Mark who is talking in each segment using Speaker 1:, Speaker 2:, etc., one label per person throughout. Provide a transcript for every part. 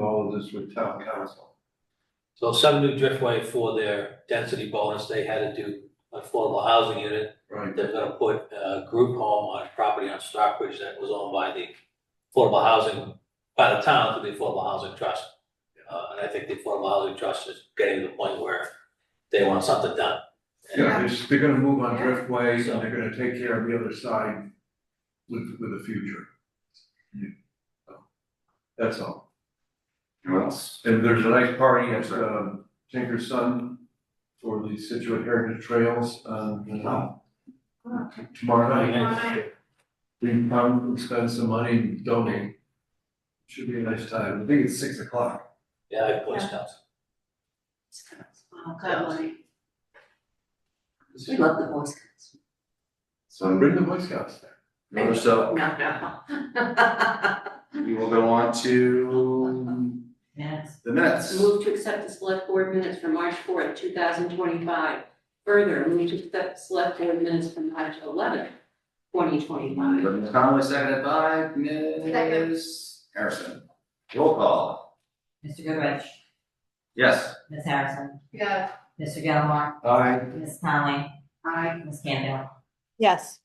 Speaker 1: all of this with town council.
Speaker 2: So some new driftway for their density bonus, they had to do affordable housing unit.
Speaker 1: Right.
Speaker 2: They're gonna put a group home on property on Stockbridge that was owned by the affordable housing, by the town through the Affordable Housing Trust. Uh, and I think the Affordable Housing Trust is getting to the point where they want something done. And
Speaker 1: Yeah, they're, they're gonna move on
Speaker 3: Yeah.
Speaker 1: Driftway, and they're gonna take care of the other side with, with the future. So, That's all.
Speaker 4: Anyone else?
Speaker 1: And there's a nice party at, um, Tinker's Sun for the Situate Heritage Trails, um, t- tomorrow night. We can come and spend some money and donate. Should be a nice time. I think it's six o'clock.
Speaker 2: Yeah, I have Boy Scouts.
Speaker 3: Oh, God, Lordy. We love the Boy Scouts.
Speaker 4: So
Speaker 1: Bring the Boy Scouts there.
Speaker 4: another so
Speaker 3: No, no.
Speaker 4: we will go on to
Speaker 3: Yes.
Speaker 4: the minutes.
Speaker 3: Move to accept the select board minutes for March fourth, two thousand twenty-five. Further, move to accept select board minutes from March eleventh, twenty twenty-five.
Speaker 4: Ms. Conley, seconded by Ms. Harrison. Roll call.
Speaker 5: Mr. Goodrich,
Speaker 4: Yes.
Speaker 5: Ms. Harrison,
Speaker 3: Yeah.
Speaker 5: Mr. Gilmore,
Speaker 1: Aye.
Speaker 5: Ms. Conley,
Speaker 3: I,
Speaker 5: Ms. Campbell.
Speaker 6: Yes.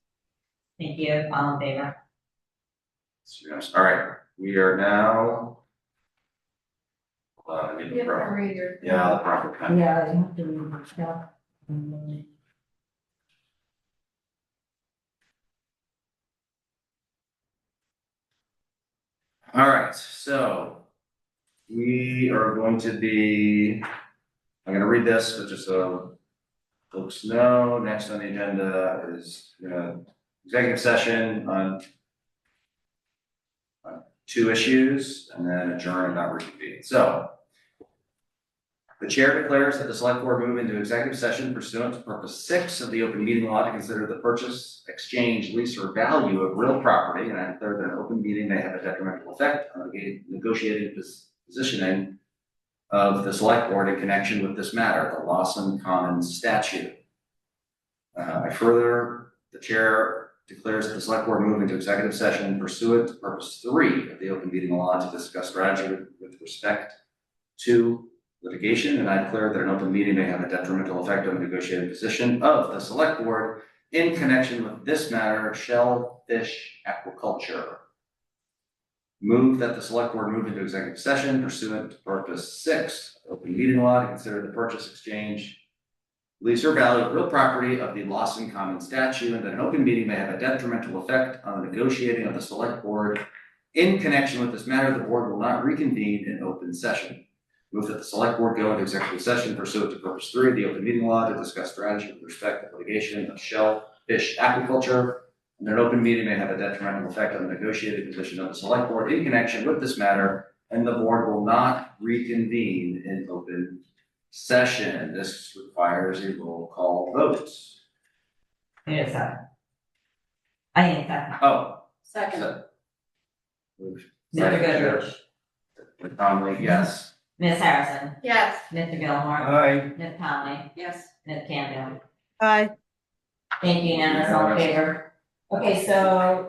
Speaker 5: Thank you, all in favor.
Speaker 4: So, yes. All right, we are now. Uh, I need the proper, yeah, the proper pen.
Speaker 5: Yeah, you have to read the stuff. Mm.
Speaker 4: All right, so we are going to be, I'm gonna read this, but just so folks know, next on the agenda is uh, executive session on on two issues and then adjourn and not reconvene. So the chair declares that the select board move into executive session pursuant to purpose six of the open meeting law to consider the purchase, exchange, lease, or value of real property, and I declare that an open meeting may have a detrimental effect on the negotiated pos- positioning of the select board in connection with this matter, the Lawson Commons statute. Uh, I further, the chair declares that the select board move into executive session pursuant to purpose three of the open meeting law to discuss strategy with- with respect to litigation, and I declare that an open meeting may have a detrimental effect on the negotiated position of the select board in connection with this matter, shellfish aquaculture. Move that the select board move into executive session pursuant to purpose six, of open meeting law to consider the purchase, exchange, lease or value of real property of the Lawson Common statute, and that an open meeting may have a detrimental effect on the negotiating of the select board in connection with this matter, the board will not reconvene in open session. Move that the select board go into executive session pursuant to purpose three of the open meeting law to discuss strategy with respect to litigation of shellfish aquaculture. And an open meeting may have a detrimental effect on the negotiated position of the select board in connection with this matter, and the board will not reconvene in open session. This requires a roll call vote.
Speaker 5: Wait a second. uh, I uh, need a second.
Speaker 4: Oh,
Speaker 3: Second,
Speaker 4: so.
Speaker 5: Mr. Goodrich,
Speaker 4: Conley, yes.
Speaker 5: Ms. Harrison,
Speaker 7: Yes.
Speaker 5: Mr. Gilmore,
Speaker 1: Aye.
Speaker 5: Ms. Conley,
Speaker 3: yes.
Speaker 5: Ms. Campbell.
Speaker 6: Aye.
Speaker 5: Thank you, unanimous, all in favor. Okay, so